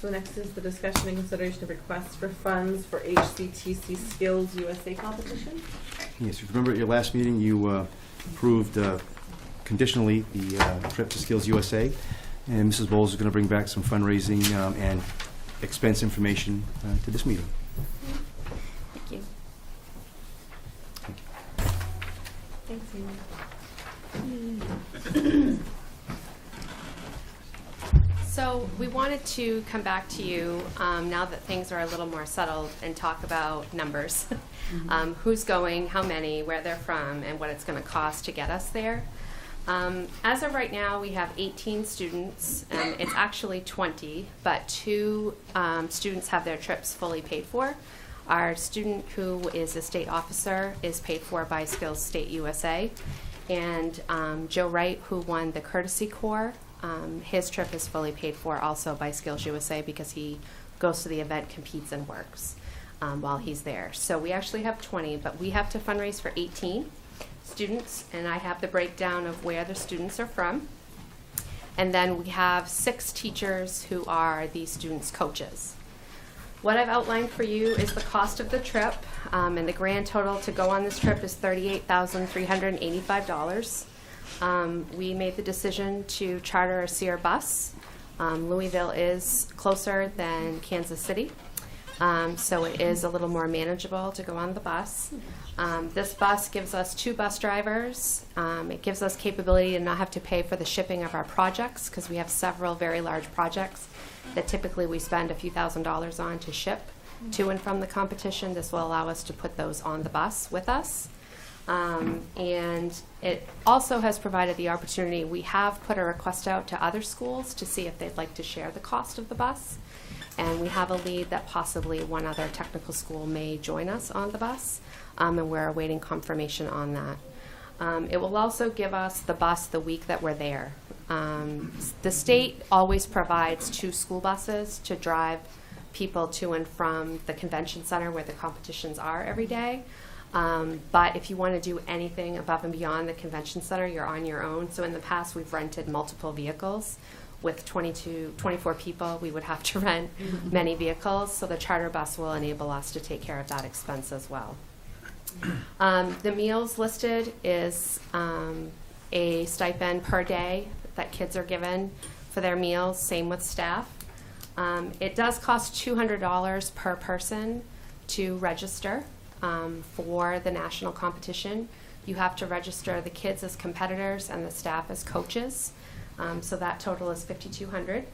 So next is the discussion and consideration of requests for funds for HCTC Skills USA competition. Yes, you remember at your last meeting, you uh, approved uh, conditionally the uh, trip to Skills USA, and Mrs. Bowles is going to bring back some fundraising um, and expense information uh, to this meeting. Thank you. Thanks, So we wanted to come back to you, um, now that things are a little more settled, and talk about numbers. Um, who's going, how many, where they're from, and what it's gonna cost to get us there. Um, as of right now, we have eighteen students, and it's actually twenty, but two, um, students have their trips fully paid for. Our student who is a state officer is paid for by Skills State USA. And um, Joe Wright, who won the Courtesy Corps, um, his trip is fully paid for also by Skills USA because he goes to the event, competes, and works um, while he's there. So we actually have 20, but we have to fundraise for 18 students, and I have the breakdown of where the students are from. And then we have six teachers who are the students' coaches. What I've outlined for you is the cost of the trip, um, and the grand total to go on this trip is $38,385. Um, we made the decision to charter a Sear bus. Um, Louisville is closer than Kansas City, um, so it is a little more manageable to go on the bus. Um, this bus gives us two bus drivers. Um, it gives us capability to not have to pay for the shipping of our projects because we have several very large projects that typically we spend a few thousand dollars on to ship to and from the competition. This will allow us to put those on the bus with us. Um, and it also has provided the opportunity, we have put a request out to other schools to see if they'd like to share the cost of the bus. And we have a lead that possibly one other technical school may join us on the bus, um, and we're awaiting confirmation on that. Um, it will also give us the bus the week that we're there. Um, s- the state always provides two school buses to drive people to and from the convention center where the competitions are every day. Um, but if you want to do anything above and beyond the convention center, you're on your own. So in the past, we've rented multiple vehicles. With 22, 24 people, we would have to rent many vehicles. So the charter bus will enable us to take care of that expense as well. Um, the meals listed is um, a stipend per day that kids are given for their meals, same with staff. Um, it does cost $200 per person to register um, for the national competition. You have to register the kids as competitors and the staff as coaches. Um, so that total is 5200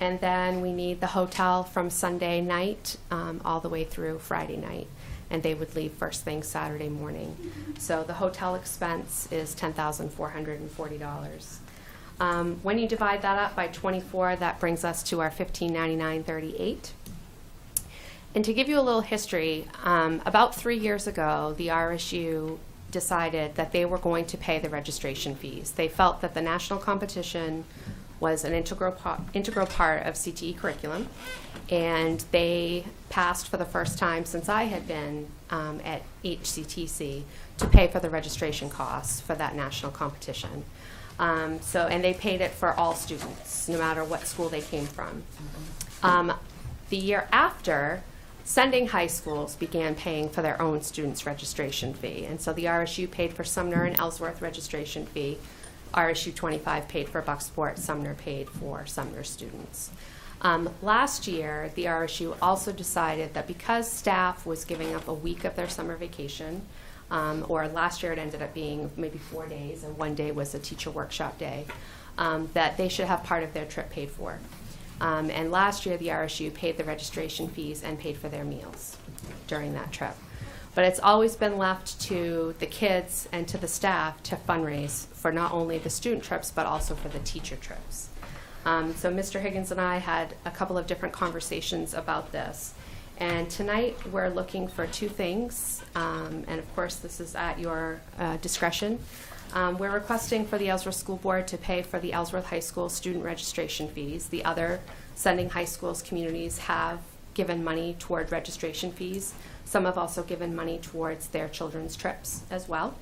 and then we need the hotel from Sunday night um, all the way through Friday night. And they would leave first thing Saturday morning. So the hotel expense is $10,440. Um, when you divide that up by 24, that brings us to our $1,599.38. And to give you a little history, um, about three years ago, the RSU decided that they were going to pay the registration fees. They felt that the national competition was an integral, po- integral part of CTE curriculum, and they passed for the first time since I had been um, at HCTC to pay for the registration costs for that national competition. Um, so, and they paid it for all students, no matter what school they came from. Um, the year after, sending high schools began paying for their own students' registration fee. And so the RSU paid for Sumner and Ellsworth registration fee. RSU 25 paid for Bucksport, Sumner paid for Sumner students. Um, last year, the RSU also decided that because staff was giving up a week of their summer vacation, um, or last year it ended up being maybe four days, and one day was a teacher workshop day, um, that they should have part of their trip paid for. Um, and last year, the RSU paid the registration fees and paid for their meals during that trip. But it's always been left to the kids and to the staff to fundraise for not only the student trips, but also for the teacher trips. Um, so Mr. Higgins and I had a couple of different conversations about this. And tonight, we're looking for two things, um, and of course, this is at your uh, discretion. Um, We're requesting for the Ellsworth School Board to pay for the Ellsworth High School student registration fees. The other sending high schools communities have given money toward registration fees. Some have also given money towards their children's trips as well.